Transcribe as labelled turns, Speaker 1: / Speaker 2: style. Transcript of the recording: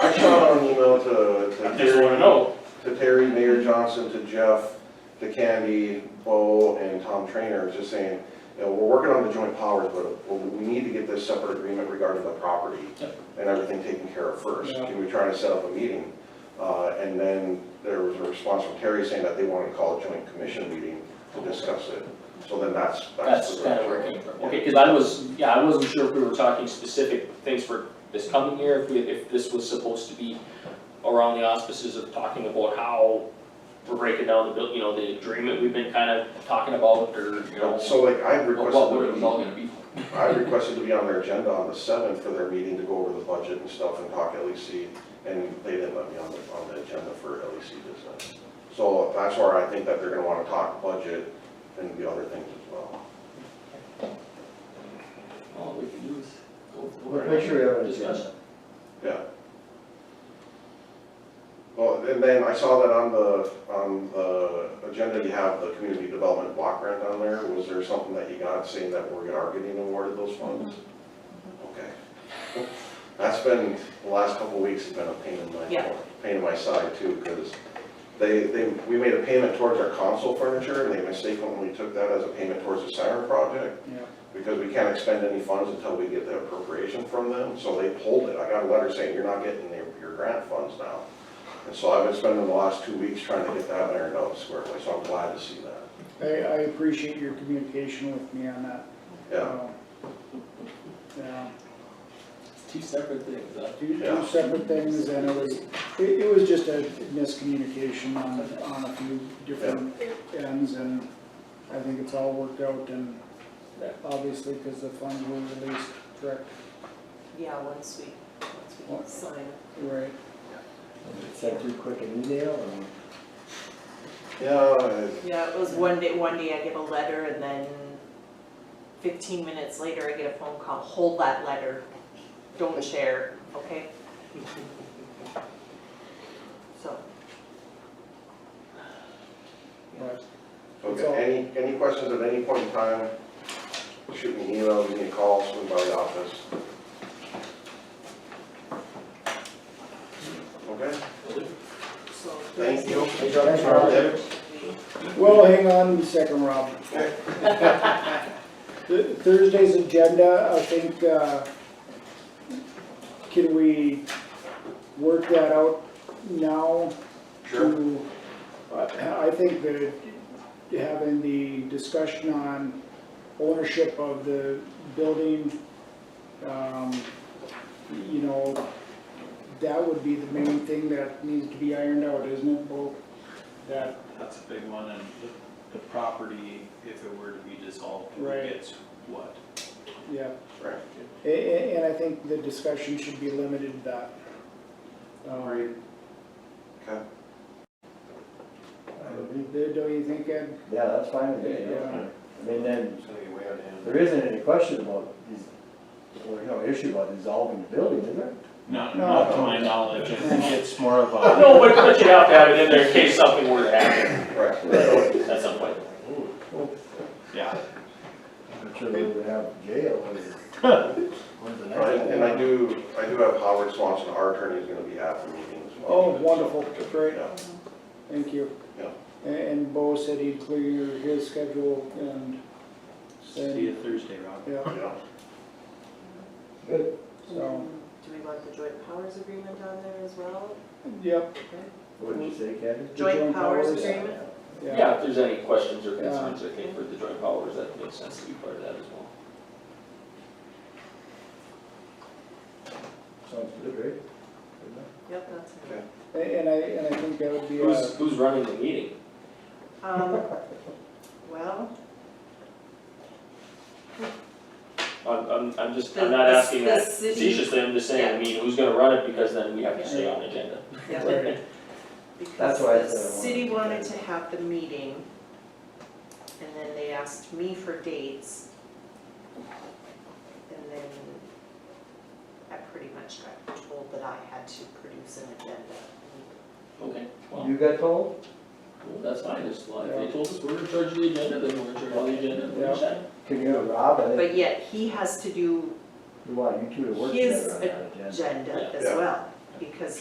Speaker 1: shot an email to,
Speaker 2: I
Speaker 1: to
Speaker 2: just wanna
Speaker 1: Terry,
Speaker 2: know,
Speaker 1: to Terry, Mayor Johnson, to Jeff, to Candy, Bo, and Tom Trainer, just saying, you know, we're working on the joint powers, but we we need to get this separate agreement regarding the property
Speaker 2: Yep.
Speaker 1: and everything taken care of first.
Speaker 2: Yeah.
Speaker 1: Can we try to set up a meeting? Uh, and then there was a response from Terry saying that they wanted to call a joint commission meeting to discuss it. So then that's, that's.
Speaker 3: That's
Speaker 1: the
Speaker 3: kind of where it came from,
Speaker 1: Yeah.
Speaker 3: okay, cause I was, yeah, I wasn't sure if we were talking specific things for this coming year, if we, if this was supposed to be around the auspices of talking about how we're breaking down the bill, you know, the agreement we've been kind of talking about, or, you know,
Speaker 1: So like I
Speaker 3: what
Speaker 1: requested.
Speaker 3: what
Speaker 1: that
Speaker 3: it
Speaker 1: we-
Speaker 3: was all gonna be.
Speaker 1: I requested to be on their agenda on the seventh for their meeting to go over the budget and stuff and talk LEC, and they didn't let me on the, on the agenda for LEC this night. So that's where I think that they're gonna wanna talk budget and the other things as well.
Speaker 3: All we can do is go
Speaker 4: We'll
Speaker 3: through.
Speaker 4: Make sure we have an
Speaker 3: Discuss.
Speaker 4: agenda.
Speaker 1: Yeah. Well, and then I saw that on the, on the agenda, you have the community development block grant on there. Was there something that you got saying that we are getting awarded those funds? Okay. That's been, the last couple of weeks have been a pain in my,
Speaker 5: Yeah.
Speaker 1: pain in my side too, because they, they, we made a payment towards our console furniture, and they mistakenly took that as a payment towards the siren project because we can't expend any funds until we get the appropriation from them, so they pulled it. I got a letter saying, you're not getting your, your grant funds now. And so I've been spending the last two weeks trying to get that ironed out squarely, so I'm glad to see that.
Speaker 6: I, I appreciate your communication with me on that.
Speaker 1: Yeah,
Speaker 6: Um, Yeah,
Speaker 3: Two separate things, uh,
Speaker 6: two,
Speaker 1: Yeah.
Speaker 6: two separate things, and it was, it, it was just a miscommunication on, on a few different ends, and I think it's all worked out, and obviously, because the funds were released, correct,
Speaker 5: Yeah, once we, once we sign it.
Speaker 6: right?
Speaker 4: Send you quick an email or?
Speaker 1: yeah, I-
Speaker 5: Yeah, it was one day, one day I get a letter and then fifteen minutes later I get a phone call, hold that letter, don't share, okay? So,
Speaker 6: But
Speaker 1: okay, any, any questions at any point in time? Shoot me an email, give me a call, swing by the office. Okay,
Speaker 5: so.
Speaker 1: thank you.
Speaker 4: Thanks, Rob.
Speaker 6: Well, hang on a second, Rob. Th- Thursday's agenda, I think, uh, can we work that out now? to- uh, I I think that having the discussion on ownership of the building, um, you know, that would be the main thing that needs to be ironed out, isn't it, Bo? That
Speaker 7: That's a big one, and the, the property, if it were to be dissolved, who
Speaker 6: Right.
Speaker 7: gets what?
Speaker 6: Yeah,
Speaker 1: Right.
Speaker 6: a- a- and I think the discussion should be limited to that. Um,
Speaker 1: Okay.
Speaker 6: Do do you think, Ed?
Speaker 4: Yeah, that's fine with me.
Speaker 6: Yeah.
Speaker 4: I mean, then,
Speaker 7: It's gonna be way out of hand.
Speaker 4: there isn't any question about, these- or no issue about dissolving the building, is there?
Speaker 7: Not,
Speaker 6: No.
Speaker 7: not to my knowledge, I think it's more of a,
Speaker 3: No, but, but you have to have it in there in case something were to happen
Speaker 1: Right.
Speaker 3: at some point.
Speaker 7: yeah,
Speaker 4: I'm sure they would have jail or, when's the next
Speaker 1: Right,
Speaker 4: one?
Speaker 1: And I do, I do have Howard Swanson, our attorney, is gonna be at the meeting as well.
Speaker 6: Oh, wonderful, great,
Speaker 1: Yeah,
Speaker 6: thank you.
Speaker 1: Yeah.
Speaker 6: A- And Bo said he'd clear his schedule and,
Speaker 7: see you Thursday, Rob.
Speaker 6: yeah,
Speaker 1: yeah.
Speaker 4: Good.
Speaker 6: so,
Speaker 5: Do we want the joint powers agreement on there as well?
Speaker 6: yep,
Speaker 4: What'd you say, Ken?
Speaker 5: Joint
Speaker 6: joint
Speaker 5: powers
Speaker 6: powers,
Speaker 5: agreement?
Speaker 6: yeah.
Speaker 3: Yeah, if there's any questions or concerns, I think with the joint powers, that makes sense to be part of that as well.
Speaker 4: Sounds good, right? Good enough.
Speaker 5: Yep, that's it.
Speaker 6: A- And I, and I think that would be,
Speaker 3: Who's,
Speaker 6: a-
Speaker 3: who's running the meeting?
Speaker 5: Um, well,
Speaker 3: I'm, I'm, I'm just,
Speaker 5: The-
Speaker 3: I'm not
Speaker 5: the-
Speaker 3: asking
Speaker 5: the
Speaker 3: that
Speaker 5: city-
Speaker 3: facetiously, I'm just saying, I mean, who's gonna run it, because then we have to stay on agenda.
Speaker 5: yeah,
Speaker 6: right,
Speaker 5: because
Speaker 4: That's why I
Speaker 5: the
Speaker 4: said I wanted
Speaker 5: city
Speaker 4: to-
Speaker 5: wanted to have the meeting, and then they asked me for dates. And then I pretty much got told that I had to produce an agenda.
Speaker 3: Okay, well,
Speaker 4: You got told?
Speaker 3: well, that's fine, just like, they told us we're in charge of the agenda, then we're in charge of the agenda, and we're in charge.
Speaker 4: Can you, Rob, I think,
Speaker 5: But yet, he has to do
Speaker 4: we want you two to work
Speaker 5: His
Speaker 4: together on that agenda.
Speaker 5: agenda as
Speaker 1: Yeah.
Speaker 5: well, because